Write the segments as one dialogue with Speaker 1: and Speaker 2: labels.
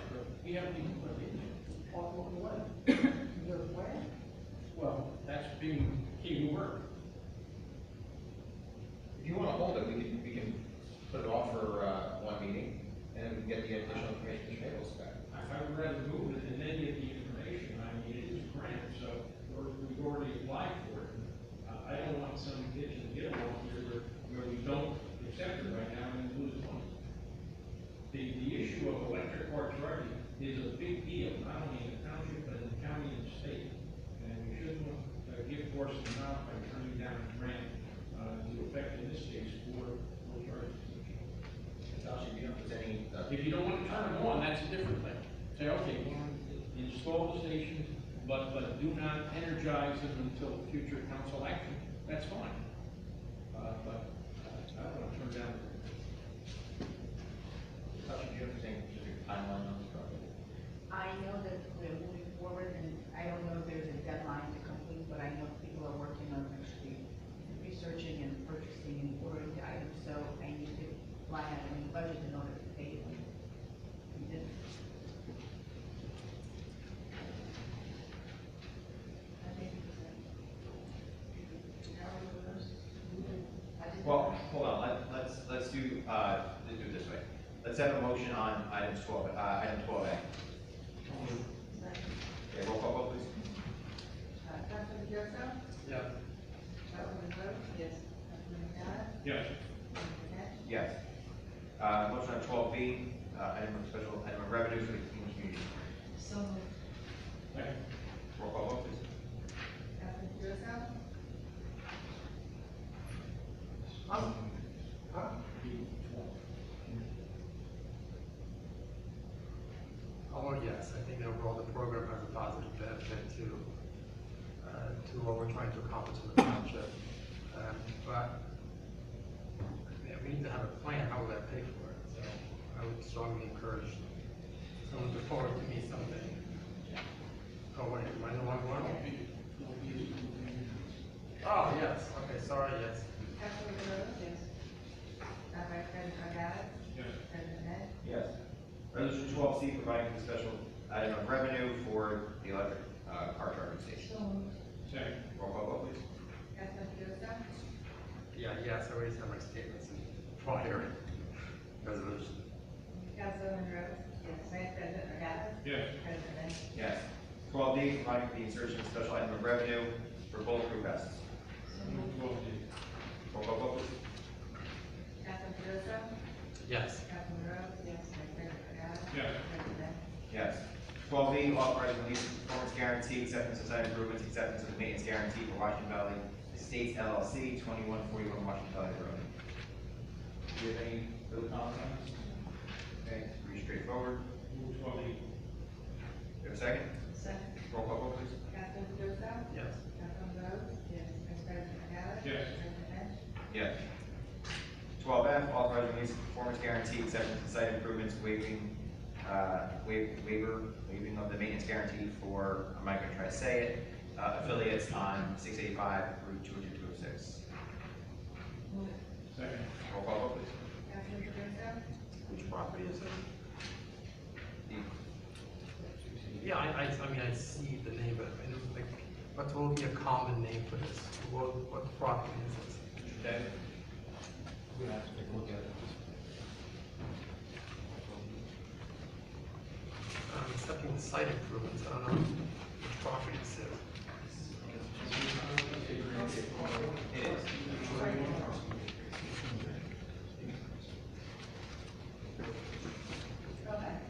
Speaker 1: have any input in it.
Speaker 2: On what? Your what?
Speaker 1: Well, that's being key work.
Speaker 3: If you wanna hold it, we can, we can put it off for, uh, one meeting, and then we can get the additional information from Nichols back.
Speaker 1: If I would rather move it than any of the information, I mean, it is a grant, so we're- we've already applied for it. Uh, I don't want some ditch and get along here where, where we don't accept it right now and lose money. The, the issue of electric car charging is a big deal, not only in the township, but in the county and the state. And we shouldn't uh, give force them out by turning down a grant, uh, to affect in this case for, for charging.
Speaker 3: Josh, if you don't, there's any, uh,
Speaker 1: If you don't want to turn them on, that's a different thing. Say, okay, we'll install the stations, but, but do not energize them until future council action. That's fine. Uh, but uh, I don't want to turn down.
Speaker 3: Josh, if you don't, there's any specific timeline on this project.
Speaker 2: I know that we're moving forward, and I don't know if there's a deadline to complete, but I know people are working on actually researching and purchasing and ordering the items, so I need to line out a new budget in order to pay them. We did- I think it's like- How are those? I just-
Speaker 4: Well, hold on, let, let's, let's do, uh, let's do it this way. Let's have a motion on item twelve, uh, item twelve A. Okay, roll call vote, please.
Speaker 5: Uh, Councilman Joseph?
Speaker 1: Yeah.
Speaker 5: Councilman Rhodes? Yes. Councilman Canales?
Speaker 1: Yes.
Speaker 5: Councilman Nash?
Speaker 4: Yes. Uh, motion on twelve B, uh, item of special, item of revenue for the Kingwood community.
Speaker 5: So moved.
Speaker 1: Second.
Speaker 4: Roll call vote, please.
Speaker 5: Councilman Joseph?
Speaker 2: Um, huh?
Speaker 6: I want, Oh, yes, I think overall the program has a positive benefit to, uh, to what we're trying to accomplish in the township. Um, But, yeah, we need to have a plan, how will that pay for it? So I would strongly encourage someone to forward to me something. Oh, wait, am I the wrong one? Oh, yes, okay, sorry, yes.
Speaker 5: Councilman Rhodes? Yes. Uh, Vice President Morales?
Speaker 1: Yes.
Speaker 5: President Nash?
Speaker 4: Yes. Resolution twelve C, providing for the special item of revenue for the electric, uh, car charging station.
Speaker 5: So moved.
Speaker 1: Second.
Speaker 4: Roll call vote, please.
Speaker 5: Councilman Joseph?
Speaker 6: Yeah, yes, I already said my statements in prior resolution.
Speaker 5: Councilman Rhodes? Yes. Vice President Morales?
Speaker 1: Yes.
Speaker 5: President Nash?
Speaker 4: Yes. Twelve D, providing for the insertion of special item of revenue for bulletproof vests.
Speaker 1: Twelve D.
Speaker 4: Roll call vote, please.
Speaker 5: Councilman Joseph?
Speaker 6: Yes.
Speaker 5: Councilman Rhodes? Yes. Vice President Morales?
Speaker 1: Yes.
Speaker 5: President Nash?
Speaker 4: Yes. Twelve B, authorizing release of performance guarantee, acceptance of site improvements, acceptance of the maintenance guarantee for Washington Valley Estates LLC, twenty-one forty-one Washington Valley Road. Do you have any further comments? on this? Okay, it's pretty straightforward.
Speaker 1: Move twelve D.
Speaker 4: Do you have a second?
Speaker 5: Second.
Speaker 4: Roll call vote, please.
Speaker 5: Councilman Joseph?
Speaker 6: Yes.
Speaker 5: Councilman Rhodes? Yes. Vice President Morales?
Speaker 1: Yes.
Speaker 5: President Nash?
Speaker 4: Yes. Twelve F, authorizing release of performance guarantee, acceptance of site improvements, waiving, uh, wa- waiver, waiving of the maintenance guarantee for, I'm not gonna try to say it, uh, affiliates on six eighty-five Route two hundred two oh six.
Speaker 5: Move it.
Speaker 1: Second.
Speaker 4: Roll call vote, please.
Speaker 5: Councilman Joseph?
Speaker 4: Which property is it? The-
Speaker 6: Yeah, I, I, I mean, I see the name, but I don't think, what will be a common name for this? What, what property is this?
Speaker 3: We're gonna have to take a look at it.
Speaker 6: I'm accepting the Um, site improvements, I don't know which property this is.
Speaker 4: It is.
Speaker 5: Go back. Back.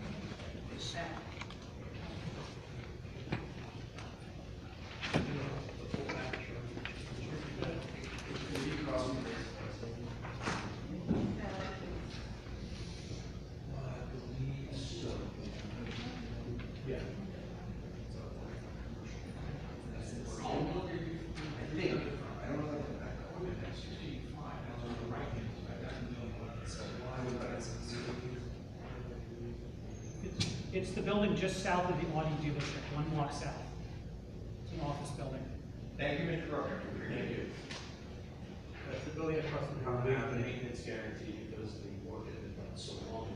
Speaker 7: It's the building just south of the Audi dealership, one block south. It's an office building.
Speaker 4: Thank you, Mr. Broker.
Speaker 8: Thank you.
Speaker 6: That's the building across from
Speaker 8: How
Speaker 6: Howard
Speaker 8: big of a
Speaker 6: Avenue.
Speaker 8: maintenance guarantee because the work that is done so long